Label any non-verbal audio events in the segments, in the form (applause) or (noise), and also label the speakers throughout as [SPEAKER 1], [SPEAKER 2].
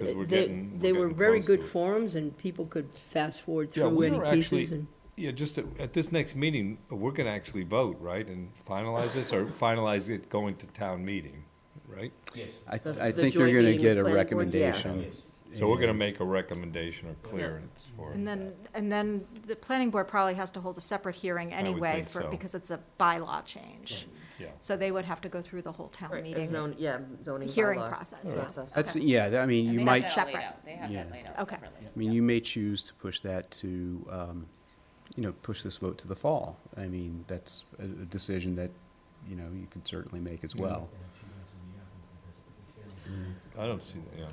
[SPEAKER 1] 'Cause we're
[SPEAKER 2] they,
[SPEAKER 1] getting- we're
[SPEAKER 2] they were
[SPEAKER 1] getting
[SPEAKER 2] very
[SPEAKER 1] close
[SPEAKER 2] good
[SPEAKER 1] to it.
[SPEAKER 2] forums and people could fast forward
[SPEAKER 1] Yeah,
[SPEAKER 2] through
[SPEAKER 1] we
[SPEAKER 2] any
[SPEAKER 1] are
[SPEAKER 2] pieces
[SPEAKER 1] actually-
[SPEAKER 2] and.
[SPEAKER 1] Yeah, just at, at this next meeting, we're gonna actually vote, right, and finalize this, or finalize it going to town meeting, right?
[SPEAKER 3] Yes,
[SPEAKER 4] I,
[SPEAKER 5] The-
[SPEAKER 4] I
[SPEAKER 5] the
[SPEAKER 4] think you're
[SPEAKER 5] joint
[SPEAKER 4] gonna
[SPEAKER 5] meeting
[SPEAKER 4] get a
[SPEAKER 5] with planning board, yeah.
[SPEAKER 4] recommendation.
[SPEAKER 3] yes.
[SPEAKER 1] So we're gonna make a recommendation or clearance for
[SPEAKER 6] And
[SPEAKER 1] it.
[SPEAKER 6] then, and then the planning board probably has to hold a separate hearing
[SPEAKER 1] would
[SPEAKER 6] anyway
[SPEAKER 1] think
[SPEAKER 6] for,
[SPEAKER 1] so.
[SPEAKER 6] because it's a bylaw change.
[SPEAKER 1] Yeah.
[SPEAKER 6] So they would have to go through the whole town
[SPEAKER 5] Right, a
[SPEAKER 6] meeting
[SPEAKER 5] zone- Yeah, zoning bylaw.
[SPEAKER 6] hearing process, yeah.
[SPEAKER 5] process.
[SPEAKER 4] That's, yeah, that- I mean, you
[SPEAKER 6] they
[SPEAKER 4] might,
[SPEAKER 6] have
[SPEAKER 4] I
[SPEAKER 6] that-
[SPEAKER 7] Laid
[SPEAKER 6] separate.
[SPEAKER 7] out. They have
[SPEAKER 4] Yeah.
[SPEAKER 7] that laid out
[SPEAKER 6] Okay.
[SPEAKER 7] separately.
[SPEAKER 4] mean, you may choose to push that to, um, you know, push this vote to the fall. I mean, that's a, a decision that, you know, you could certainly make as well.
[SPEAKER 1] I don't see, that, yeah.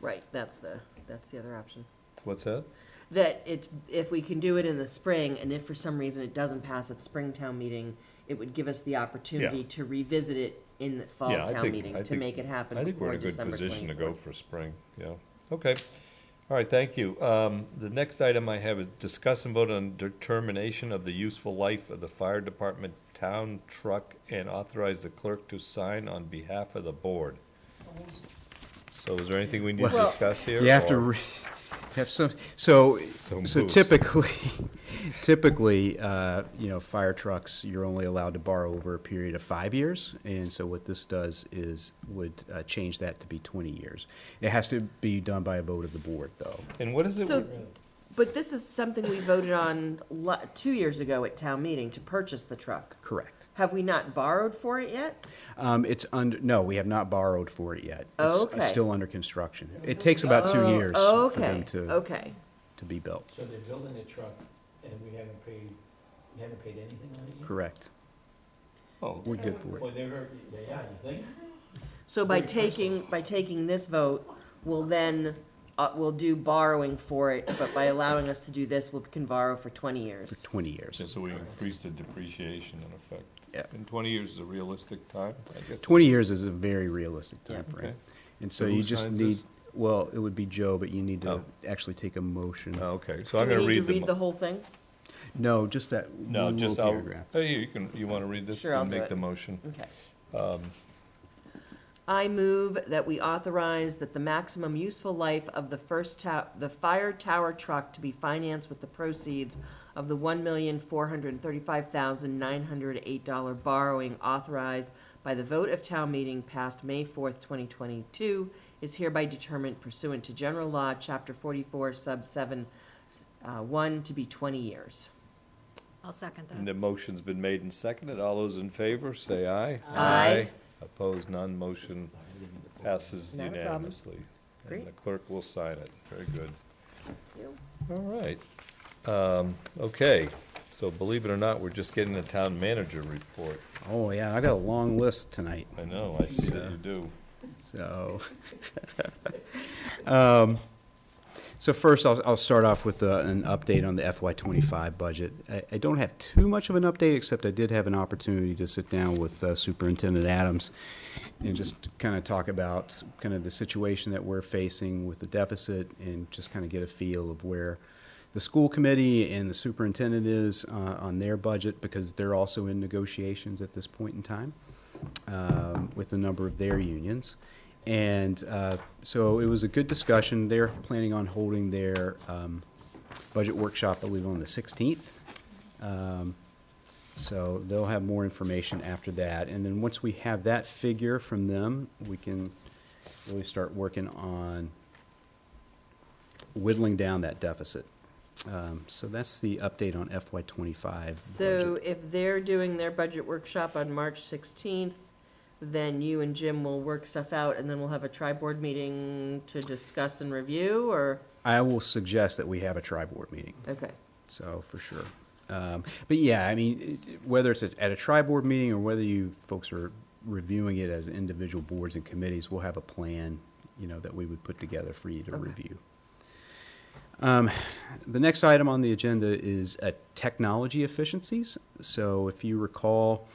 [SPEAKER 5] Right, that's the, that's the other option.
[SPEAKER 1] What's that?
[SPEAKER 5] That it, if we can do it in the spring, and if for some reason it doesn't pass at spring town meeting, it would give us the opportunity to revisit it in the fall
[SPEAKER 1] Yeah, I
[SPEAKER 5] town
[SPEAKER 1] think- I
[SPEAKER 5] meeting to
[SPEAKER 1] think-
[SPEAKER 5] make it happen
[SPEAKER 1] I think we're
[SPEAKER 5] before
[SPEAKER 1] in a good
[SPEAKER 5] December
[SPEAKER 1] position to go
[SPEAKER 5] twenty-fourth.
[SPEAKER 1] for spring, yeah. Okay, all right, thank you. Um, the next item I have is discuss and vote on determination of the useful life of the fire department town truck and authorize the clerk to sign on behalf of the board. So is there anything we need to
[SPEAKER 5] Well-
[SPEAKER 1] discuss here?
[SPEAKER 4] You have to
[SPEAKER 1] or-
[SPEAKER 4] re- (laughs) have some, so,
[SPEAKER 1] Some
[SPEAKER 4] so
[SPEAKER 1] moves.
[SPEAKER 4] typically, (laughs) typically, uh, you know, fire trucks, you're only allowed to borrow over a period of five years. And so what this does is would uh, change that to be 20 years. It has to be done by a vote of the board, though.
[SPEAKER 1] And what is it?
[SPEAKER 5] So,
[SPEAKER 1] we-
[SPEAKER 5] but this is something we voted on lo- two years ago at town meeting to purchase the truck.
[SPEAKER 4] Correct.
[SPEAKER 5] Have we not borrowed for it yet?
[SPEAKER 4] Um, it's under, no, we have not borrowed for it yet. It's-
[SPEAKER 5] Okay.
[SPEAKER 4] It's still under construction. It takes about two
[SPEAKER 5] Oh,
[SPEAKER 4] years for
[SPEAKER 5] Okay,
[SPEAKER 4] them to,
[SPEAKER 5] okay.
[SPEAKER 4] to be built.
[SPEAKER 3] So they're building a truck and we haven't paid, we haven't paid anything on it yet?
[SPEAKER 4] Correct.
[SPEAKER 1] Oh,
[SPEAKER 4] We're good for
[SPEAKER 3] Well,
[SPEAKER 4] it.
[SPEAKER 3] they're, yeah, yeah, you think?
[SPEAKER 5] So by taking, by taking this vote, we'll then, uh, we'll do borrowing for it, but by allowing us to do this, we can borrow for twenty
[SPEAKER 4] For
[SPEAKER 5] years.
[SPEAKER 4] twenty years.
[SPEAKER 1] so we increase the depreciation in effect.
[SPEAKER 4] Yeah.
[SPEAKER 1] And twenty years is a realistic time, I guess.
[SPEAKER 4] Twenty years is a very realistic
[SPEAKER 5] Yeah.
[SPEAKER 4] timeframe.
[SPEAKER 1] Okay.
[SPEAKER 4] And so
[SPEAKER 1] So
[SPEAKER 4] you
[SPEAKER 1] who
[SPEAKER 4] just
[SPEAKER 1] signs
[SPEAKER 4] need,
[SPEAKER 1] this?
[SPEAKER 4] well, it would be Joe, but you need to
[SPEAKER 1] Oh.
[SPEAKER 4] actually take a motion.
[SPEAKER 1] Oh, Okay, so I'm
[SPEAKER 5] Do
[SPEAKER 1] gonna
[SPEAKER 5] we need
[SPEAKER 1] read
[SPEAKER 5] to read the
[SPEAKER 1] them.
[SPEAKER 5] whole thing?
[SPEAKER 4] No, just that one
[SPEAKER 1] No,
[SPEAKER 4] little
[SPEAKER 1] just, I'll,
[SPEAKER 4] paragraph.
[SPEAKER 1] oh, you can, you wanna read this
[SPEAKER 5] Sure, I'll
[SPEAKER 1] and
[SPEAKER 5] do
[SPEAKER 1] make
[SPEAKER 5] it.
[SPEAKER 1] the motion?
[SPEAKER 5] Okay.
[SPEAKER 1] Um,
[SPEAKER 5] I move that we authorize that the maximum useful life of the first tow, the fire tower truck to be financed with the proceeds of the one million, four hundred and thirty-five thousand, nine hundred and eight dollar borrowing authorized by the vote of town meeting passed May fourth, twenty twenty-two, is hereby determined pursuant to general law, chapter forty-four, sub seven, uh, one, to be twenty years.
[SPEAKER 6] I'll second
[SPEAKER 1] And
[SPEAKER 6] that.
[SPEAKER 1] the motion's been made and seconded. All those in favor, say aye.
[SPEAKER 5] Aye.
[SPEAKER 1] Opposed, none. Motion passes
[SPEAKER 5] Not a problem.
[SPEAKER 1] unanimously. And the
[SPEAKER 5] Great.
[SPEAKER 1] clerk will sign it. Very good. All right. Um, okay, so believe it or not, we're just getting a town manager report.
[SPEAKER 4] Oh, yeah, I got a long list tonight.
[SPEAKER 1] I know, I see that you do.
[SPEAKER 4] So, (laughs) um, so first, I'll, I'll start off with uh, an update on the FY twenty-five budget. I, I don't have too much of an update, except I did have an opportunity to sit down with uh, Superintendent Adams and just kind of talk about kind of the situation that we're facing with the deficit and just kind of get a feel of where the school committee and the superintendent is uh, on their budget, because they're also in negotiations at this point in time um, with a number of their unions. And uh, so it was a good discussion. They're planning on holding their um, budget workshop, I believe, on the 16th. Um, So they'll have more information after that. And then once we have that figure from them, we can really start working on whittling down that deficit. Um, So that's the update on FY '25 budget.
[SPEAKER 5] So if they're doing their budget workshop on March sixteenth, then you and Jim will work stuff out and then we'll have a tri-board meeting to discuss and review or,
[SPEAKER 4] I will suggest that we have a tri-board meeting.
[SPEAKER 5] okay.
[SPEAKER 4] So for sure. Um, but yeah, I mean, it- whether it's at a tri board meeting or whether you folks are reviewing it as individual boards and committees, we'll have a plan, you know, that we would put together for you to
[SPEAKER 5] Okay.
[SPEAKER 4] review. Um, the next item on the agenda is uh, technology efficiencies. So if you recall,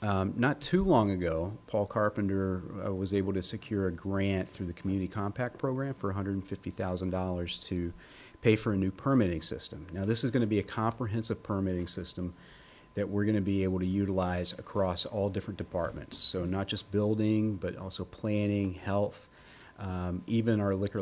[SPEAKER 4] um, not too long ago, Paul Carpenter uh, was able to secure a grant through the Community Compact Program for $150,000 to pay for a new permitting system. Now, this is going to be a comprehensive permitting system that we're going to be able to utilize across all different departments. So, not just building, but also planning, health, um, even our liquor